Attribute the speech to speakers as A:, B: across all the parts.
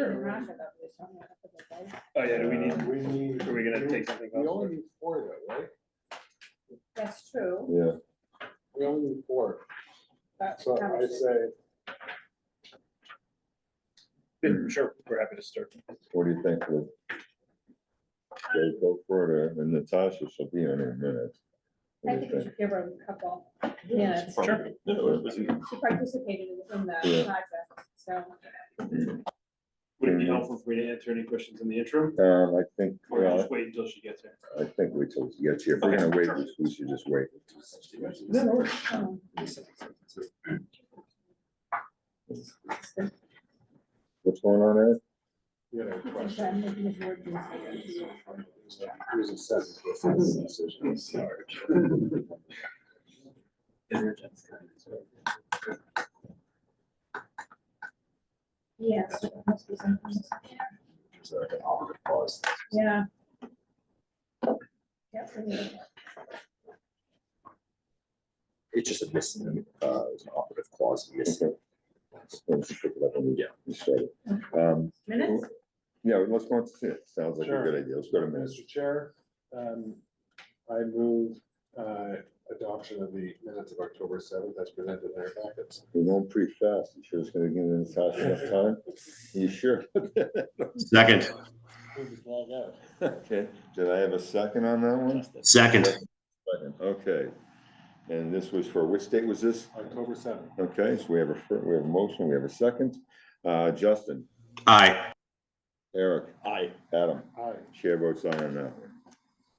A: or- Oh, yeah, do we
B: Um,
A: need, are we gonna take something
B: We
A: off?
B: only need four though, right?
C: That's true.
D: Yeah,
B: We only need four,
C: but
B: so I
C: conversation.
B: say,
A: Yeah, Sure, we're happy to start.
D: what do you think, Lou? Go- Go further, and Natasha shall be on in a
C: I
D: minute. What
C: think
D: do you
C: we
D: think?
C: should give her a couple minutes.
A: Sure.
C: She participated in- in the
D: Yeah.
C: project, so.
A: Would it be helpful for me to answer any questions in the interim?
D: Um, I think,
A: Or
D: well,
A: just wait until she gets here?
D: I think we till she gets here, if we're gonna wait, we- we should just wait.
C: um,
D: What's going on, Ed?
B: you know,
C: then
B: question.
C: maybe the board can see it.
B: Here's a sentence that says decision is large.
C: Yes. there must be something.
B: So, I'll pause.
C: Yeah. Yep, we need it.
E: It's just a missing, uh, it's an operative clause missing.
D: Let's just pick it up when we-
E: Yeah.
D: we start it. Um,
C: minutes?
D: yeah, let's go on to it, sounds like a
B: Sure.
D: good idea, let's go to minutes.
B: Mr. Chair, um, I move, uh, adoption of the minutes of October seventh as presented in our packets.
D: We're going pretty fast, you sure it's gonna give Natasha enough time? You sure?
F: Second,
D: Okay, did I have a second on that one?
F: second,
D: Second, Okay, and this was for, which date was this?
B: October seventh.
D: Okay, so we have a, fir- we have a motion, we have a second. Uh, Justin,
F: aye,
D: Eric,
E: Aye.
D: Adam,
B: Aye.
D: chair votes aye on that one.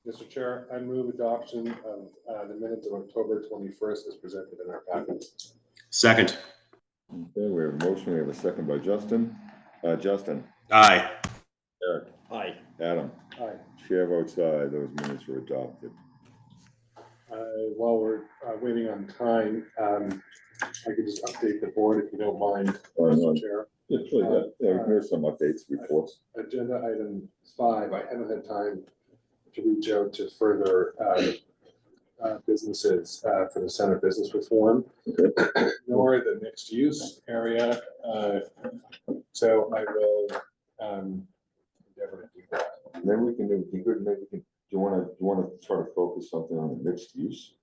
B: Mr. Chair, I move adoption of, uh, the minutes of October twenty-first as presented in our packets.
F: second,
D: Okay, we have a motion, we have a second by Justin. Uh, Justin,
F: aye,
D: Eric,
E: Aye.
D: Adam,
B: Aye.
D: chair votes aye, those minutes were adopted.
B: Uh, While we're uh, waiting on time, um, I could just update the board if you don't mind,
D: Oh, no.
B: Mr. Chair.
D: Yeah, yeah, There's some updates before.
B: Agenda item five, I haven't had time to reach out to further uh, uh, businesses uh, for the Center Business Reform, nor the mixed use area. uh, So I will um, endeavor to do that.
D: Maybe we can, do. be good, maybe we can, do you wanna, do you wanna try to focus something on the mixed use?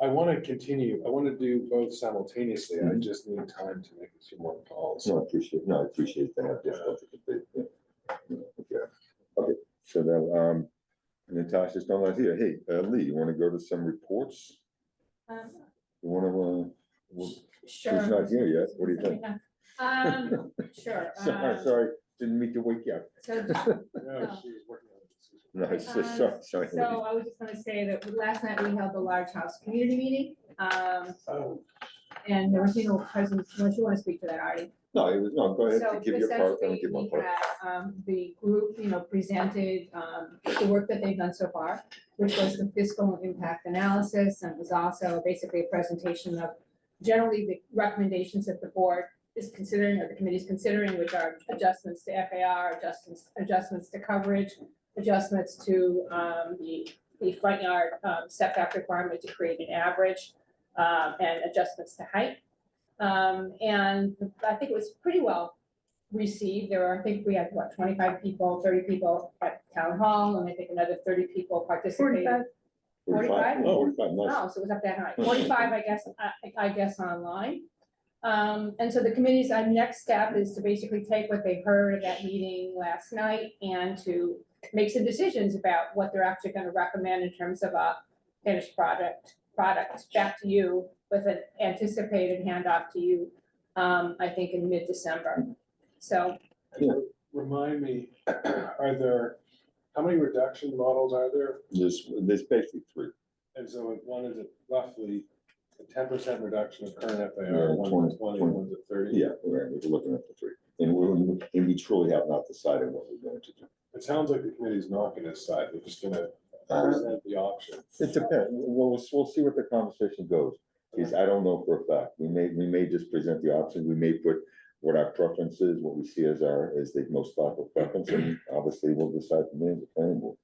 B: I want to continue, I want to do both simultaneously. I
D: Mhm.
B: just need time to make a few more calls.
D: No, I appreciate, no, I appreciate that, have difficulty. with it, yeah. Yeah, Okay, so now, um, Natasha's not out here, hey, uh, Lee, you wanna go to some reports?
C: Um,
D: You wanna, uh, well,
C: Sure.
D: she's not here yet, what do you think?
C: Um, sure.
D: Sorry,
C: um,
D: sorry, didn't mean to wake you up.
C: So
B: No, she's working on it. She's-
D: No, it's
C: Um,
D: just, sorry, sorry.
C: So I was just gonna say that last night we held the large house community meeting, um,
B: Oh,
C: and there was no presence, unless you wanna speak to that, Artie.
D: No, it was, no, go
C: So
D: ahead, give your part, then
C: essentially,
D: we give my
C: we
D: part.
C: had, um, the group, you know, presented, um, the work that they've done so far, which was the fiscal impact analysis, and was also basically a presentation of generally the recommendations that the board is considering, or the committee's considering, which are adjustments to FAR, adjustments, adjustments to coverage, adjustments to um, the, the front yard um, setback requirement to create an average, um, and adjustments to height. Um, And I think it was pretty well received. There were, I think we had, what, twenty-five people, thirty people at town hall, and I think another thirty people participated. Forty-five?
D: Oh, Forty-five, nice.
C: Oh, so it was up that high, forty-five, I guess, I- I guess online. Um, and so the committee's, uh, next step is to basically take what they heard at that meeting last night and to make some decisions about what they're actually gonna recommend in terms of a finished product, product back to you with an anticipated handoff to you, um, I think in mid-December. So
B: Remind me, are there, how many reduction models are there?
D: There's, there's basically three.
B: And so one is roughly a ten percent reduction of current
D: Yeah,
B: FAR, one's
D: 20,
B: at twenty, one's at thirty.
D: Yeah, we're, we're looking at the three, and we, and we truly have not decided what we're going to do.
B: It sounds like the committee's not gonna decide, they're just gonna
D: Uh,
B: present the option.
D: It depends, we'll, we'll, we'll see what the conversation goes, because I don't know for a fact, we may, we may just present the option, we may put what our preference is, what we see as our, as the most thoughtful preference, and obviously we'll decide from there, the planning board.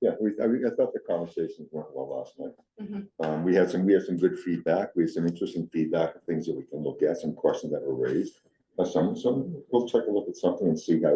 D: Yeah, we, I mean, I thought the conversations went well last night.
C: Mhm.
D: Um, we had some, we had some good feedback, we had some interesting feedback, things that we can look at, some questions that were raised. uh, some, some, we'll take a look at something and see how